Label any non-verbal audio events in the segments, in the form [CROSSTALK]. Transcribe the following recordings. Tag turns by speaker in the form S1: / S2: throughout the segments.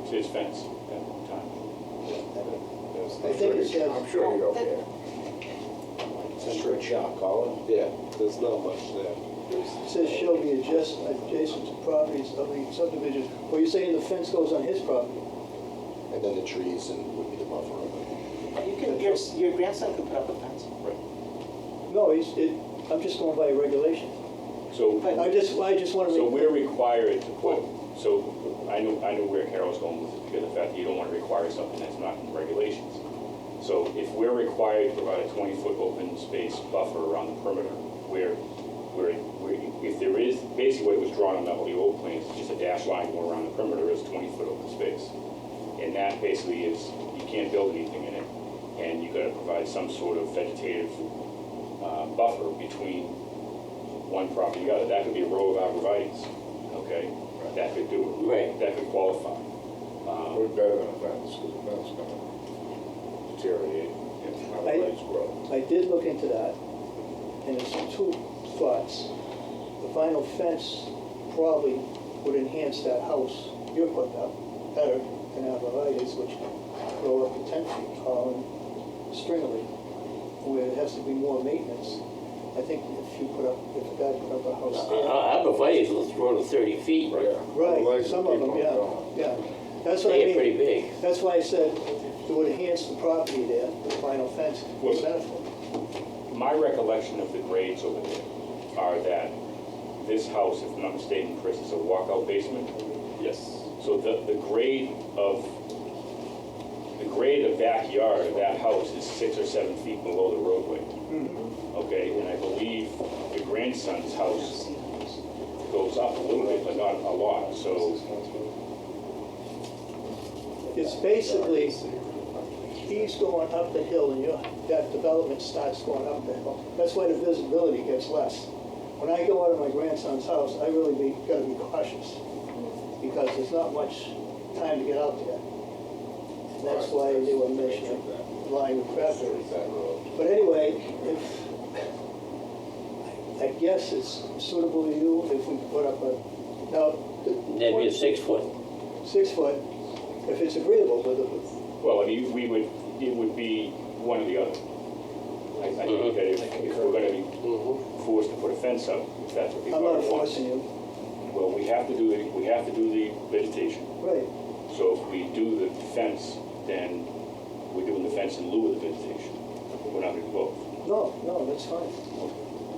S1: was his fence at one time.
S2: I think it says-
S3: I'm sure you don't care.
S4: It's for a shot, Colin.
S3: Yeah, there's not much there. There's-
S2: It says shall be adjacent, adjacent to properties of the subdivision. Well, you're saying the fence goes on his property?
S4: And then the trees and would be the buffer. of it.
S5: You can, your, your grandson could put up a fence.
S2: No, he's, it, I'm just going by regulation.
S1: So,
S5: But-
S2: I just, I just want to.
S1: so we're required to put, so I knew, I knew where Carol's going with it, because of the fact that you don't want to require something that's not in the regulations. So if we're required to provide a twenty-foot open space buffer around the perimeter, where, where, where, if there is, basically what was drawn on the the old plans, is just a dash line going around the perimeter is twenty-foot open space. And that basically is, you can't build anything in it, and you gotta provide some sort of vegetative, uh, buffer between one property to the other. That could be a row of arborvitae's, okay? That could do it.
S5: Right.
S1: That could qualify.
S3: We're
S1: Um,
S3: better than a fence, because a fence gonna deteriorate and how the
S2: I-
S3: legs grow.
S2: I did look into that, and it's two thoughts. The vinyl fence probably would enhance that house you're putting up better than arborvitae's, which grow up to ten feet tall and stringly, where it has to be more maintenance. I think if you put up, if a guy put up a house there.
S6: Abrevieties will grow to 30 feet.
S3: Yeah. The
S2: Right,
S3: legs
S2: some of
S3: keep
S2: them,
S3: on
S2: yeah,
S3: going.
S2: yeah. That's what I
S6: They're
S2: mean.
S6: pretty big.
S2: That's why I said it would enhance the property there, the vinyl fence,
S1: Well-
S2: would benefit.
S1: My recollection of the grades over there are that this house, if I'm not mistaken, Chris, is a walkout basement.
S3: Yes.
S1: So the, the grade of, the grade of backyard of that house is six or seven feet below the roadway. mm-hmm. Okay, and I believe the grandson's house goes up a little bit, but not a lot, so
S2: It's basically, he's going up the hill and your, that development starts going up the hill. That's why the visibility gets less. When I go out of my grandson's house, I really be, gotta be cautious, because there's not much time to get out there. And that's why they were mentioning line of
S3: There's
S2: craft.
S3: that road.
S2: But anyway, if, I guess it's suitable to you if we put up a, now. the-
S6: That'd be a six foot.
S2: Six foot, if it's agreeable with the,
S1: Well, I mean, we would, it would be one or the other. I, I think that if, if we're gonna be forced to put a fence up, if that's what people
S2: I'm
S1: want.
S2: not forcing you.
S1: Well, we have to do the, we have to do the vegetation,
S2: Right.
S1: so if we do the fence, then we're doing the fence in lieu of the vegetation. We're not gonna do both,
S2: No, no, that's fine.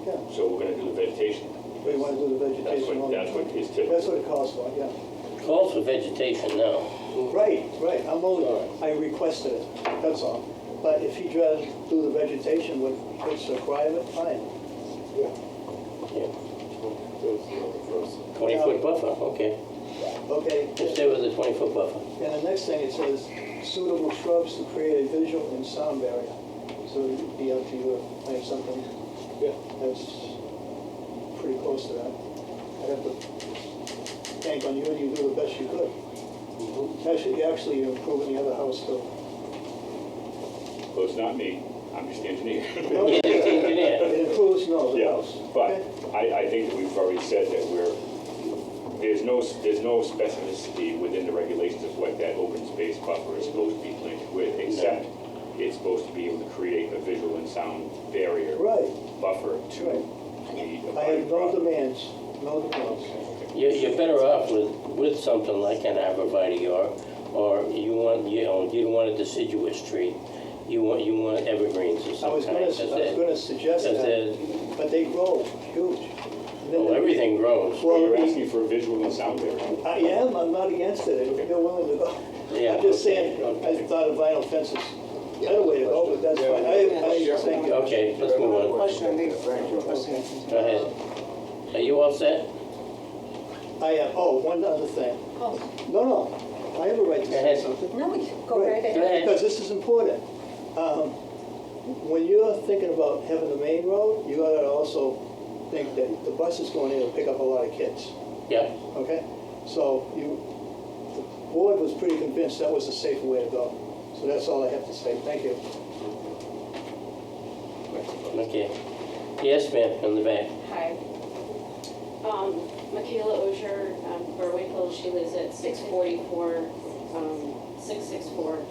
S2: Yeah.
S1: so we're gonna do the vegetation.
S2: We want to do the
S1: That's
S2: vegetation.
S1: what,
S2: only.
S1: that's what is
S2: That's
S1: typical.
S2: what it calls for, yeah.
S6: Calls for vegetation now.
S1: Mm.
S2: Right, right, I'm only, I requested it, that's all. But if you try to do the vegetation with, it's a private, fine.
S3: There's the other person.
S6: 20 foot buffer, okay.
S2: Okay,
S6: Just stay with the 20 foot [LAUGHS] buffer.
S2: and the next thing it says suitable shrubs to create a visual and sound barrier. So it'd be up to you to make something
S3: Yeah.
S2: that's pretty close to that. I'd have to bank on you and you do the best you could.
S3: Mhm.
S1: Mm-hmm.
S2: Actually, actually, you're improving the other house too.
S1: Well, it's not me, I'm just the engineer. [LAUGHS]
S6: Yeah, it's engineer.
S2: [LAUGHS] It improves, no, the
S1: Yeah,
S2: house.
S1: but
S2: okay?
S1: I, I think that we've already said that we're, there's no, there's no specificity within the regulations of what that open space buffer is supposed to be linked with, except it's supposed to be able to create a visual and sound barrier
S2: Right,
S1: buffer to
S2: Right.
S1: the.
S2: I have no demands, no demands.
S6: You're, you're better off with, with something like an arborvitae or, or you want, you know, you don't want a deciduous tree. You want, you want evergreens or
S2: I was
S6: something.
S2: gonna, I was gonna suggest
S6: Does
S2: that,
S6: it-
S2: but they grow huge. And then
S6: Well,
S2: they-
S6: everything grows.
S2: Well,
S1: You're
S2: the-
S1: asking for a visual and sound barrier.
S2: I am, I'm not against it, if you're willing to go.
S6: Yeah,
S2: I'm just
S6: okay,
S2: saying, I
S6: okay.
S2: thought a vinyl fence is a better way to go, but that's fine. I, I think,
S6: Okay, let's move
S5: One
S6: on.
S5: question, I need a question.
S6: Go ahead. Are you all set?
S2: I am, oh, one other thing.
S7: Oh,
S2: No, no, I have a right to
S6: Go
S2: say
S6: ahead.
S2: something.
S7: no, we can go right
S6: Go
S7: ahead.
S6: ahead.
S2: Because this is important. Um, When you're thinking about having the main road, you gotta also think that the bus is going in to pick up a lot of kids,
S6: Yeah.
S2: okay? So you, the board was pretty convinced that was the safer way to go. So that's all I have to say, thank you.
S6: Okay. Yes, ma'am, in the back.
S8: Hi. Um, Michaela Osher, um, Berwick Hill, she lives at six forty-four, um, for